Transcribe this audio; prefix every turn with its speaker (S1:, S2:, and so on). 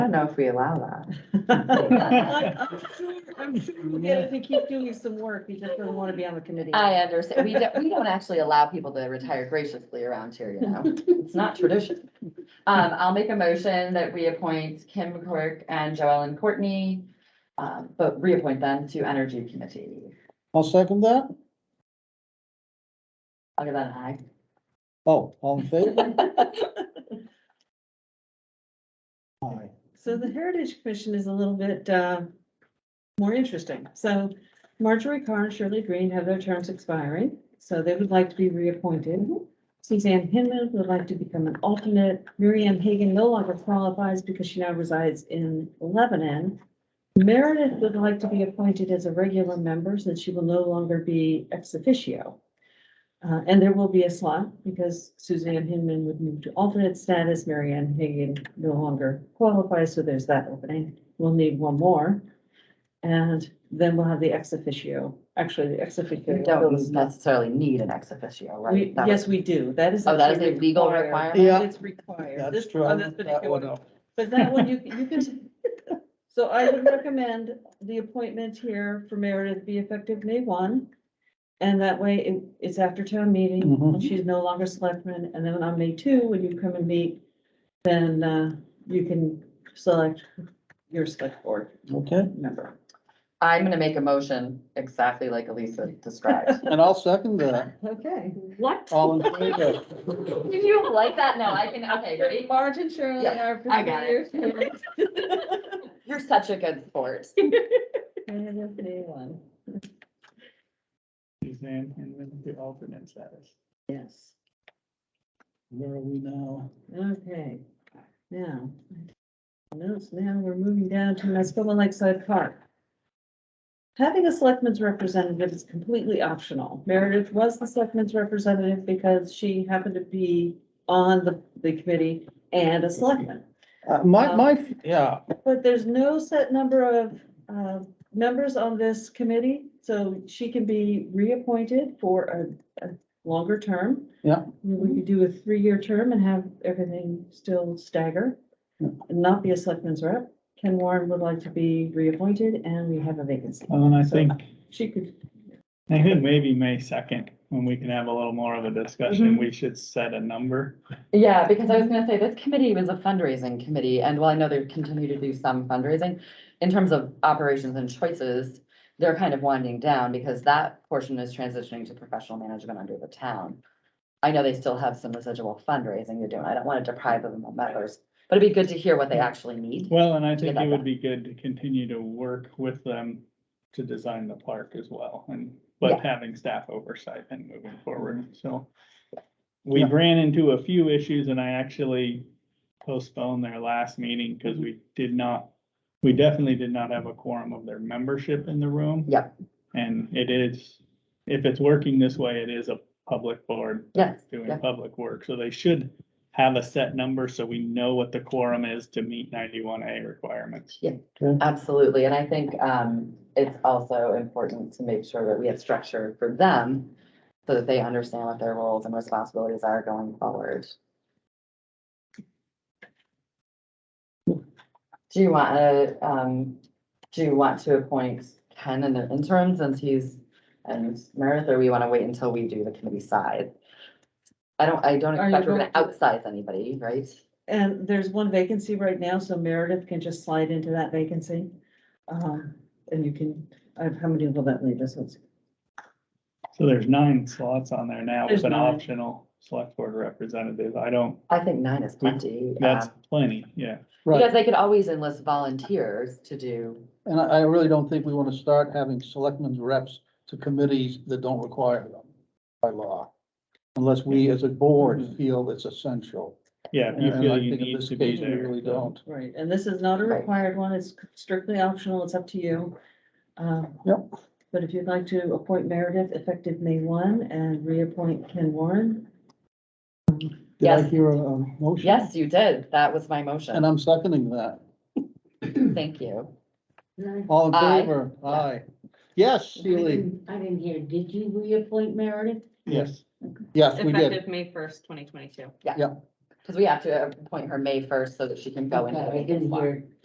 S1: don't know if we allow that.
S2: I'm sure I'm sure we'll get it if we keep doing some work, we just don't want to be on the committee.
S3: I understand. We don't, we don't actually allow people to retire graciously around here, you know? It's not tradition. Um, I'll make a motion that we appoint Kim Quirk and Joellen Courtney, um, but reappoint them to Energy Committee.
S4: I'll second that.
S3: I'll give that an aye.
S4: Oh, all in favor? Aye.
S2: So the Heritage Commission is a little bit uh, more interesting. So Marjorie Carr and Shirley Green have their terms expiring, so they would like to be reappointed. Suzanne Hinman would like to become an alternate. Miriam Hagan no longer qualifies because she now resides in Lebanon. Meredith would like to be appointed as a regular member since she will no longer be ex officio. Uh, And there will be a slot because Suzanne Hinman would move to alternate status. Marianne Hagan no longer qualifies, so there's that opening. We'll need one more. And then we'll have the ex officio, actually the ex officio.
S3: We don't necessarily need an ex officio,
S2: We,
S3: right? That
S2: yes,
S3: was-
S2: we do. That is.
S3: Oh, that is a
S2: actually
S3: legal
S2: required.
S3: requirement?
S4: Yeah,
S2: It's required.
S4: that's
S2: This,
S4: true.
S2: on
S4: I
S2: this
S4: looked that one
S2: particular,
S4: up.
S2: but that one, you, you can. So I would recommend the appointment here for Meredith be effective May one. And that way it, it's after town meeting
S4: Mhm.
S2: and she's no longer selectman. And then on May two, when you come and meet, then, uh, you can select your select board
S4: Okay,
S2: member.
S3: I'm gonna make a motion exactly like Elisa described.
S4: and I'll second that.
S2: Okay.
S3: What?
S4: All in favor?
S3: Did you like that? No, I can, okay, ready?
S2: Marge and Shirley
S3: Yeah,
S2: are.
S3: I got it. You're such a good sport.
S2: Meredith May one.
S4: Suzanne Hinman, the alternate status.
S2: Yes.
S4: Where are we now?
S2: Okay, now, notes, now we're moving down to Mascoma Lakeside Park. Having a selectman's representative is completely optional. Meredith was the selectman's representative because she happened to be on the, the committee and a selectman.
S4: Uh, my,
S2: Um,
S4: my, yeah,
S2: But there's no set number of, uh, members on this committee, so she can be reappointed for a, a longer term.
S4: Yeah.
S2: We could do a three-year term and have everything still stagger,
S4: Yeah.
S2: and not be a selectman's rep. Ken Warren would like to be reappointed, and we have a vacancy.
S5: Well, and I
S2: So-
S5: think,
S2: She could,
S5: I think maybe May second, when we can have a little more of a discussion, we should set a number.
S3: Yeah, because I was gonna say, this committee was a fundraising committee, and while I know they continue to do some fundraising, in terms of operations and choices, they're kind of winding down because that portion is transitioning to professional management under the town. I know they still have some residual fundraising they're doing. I don't want to deprive them of members, but it'd be good to hear what they actually need.
S5: Well, and I
S3: Think
S5: think
S3: about
S5: it
S3: that.
S5: would be good to continue to work with them to design the park as well and, but having staff oversight and moving forward, so. We
S4: Yeah.
S5: ran into a few issues and I actually postponed their last meeting because we did not, we definitely did not have a quorum of their membership in the room.
S3: Yep.
S5: And it is, if it's working this way, it is a public board
S3: Yes, yeah.
S5: doing public work, so they should have a set number so we know what the quorum is to meet ninety-one A requirements.
S3: Absolutely, and I think um it's also important to make sure that we have structure for them so that they understand what their roles and responsibilities are going forward. Do you want to um, do you want to appoint Ken in the interim since he's and Meredith, or we want to wait until we do the committee side? I don't, I don't
S2: Are you
S3: expect we're gonna
S2: going to-
S3: outsize anybody, right?
S2: and there's one vacancy right now, so Meredith can just slide into that vacancy. Um, and you can, uh, how many will that leave us? Let's-
S5: So there's nine slots on there now
S2: There's
S5: with an
S2: nine.
S5: optional select board representative. I don't,
S3: I think nine is plenty.
S5: that's
S3: uh,
S5: plenty, yeah.
S3: Because
S4: right.
S3: they could always enlist volunteers to do,
S4: And I, I really don't think we want to start having selectmen's reps to committees that don't require them by law. Unless we as a board feel it's essential.
S5: Yeah, if Mm-hmm. you
S4: And I
S5: feel you
S4: think in
S5: need
S4: this
S5: to be
S4: case, we
S5: there.
S4: really
S5: so-
S4: don't.
S2: Right, and this is not a
S3: Right.
S2: required one, it's strictly optional, it's up to you. Um,
S4: Yep.
S2: But if you'd like to appoint Meredith effective May one and reappoint Ken Warren,
S4: Did I
S3: Yes.
S4: hear a a motion?
S3: yes, you did, that was my
S4: And
S3: motion,
S4: I'm seconding that.
S3: thank you.
S4: All in
S3: Aye.
S4: favor? Aye. Yes, Sealy.
S6: I didn't hear, did you reappoint Meredith?
S5: Yes,
S4: Yes, we did.
S7: Effective May first, twenty twenty-two.
S3: Because we have to appoint her May first so that she can go in.
S6: Okay, I didn't hear.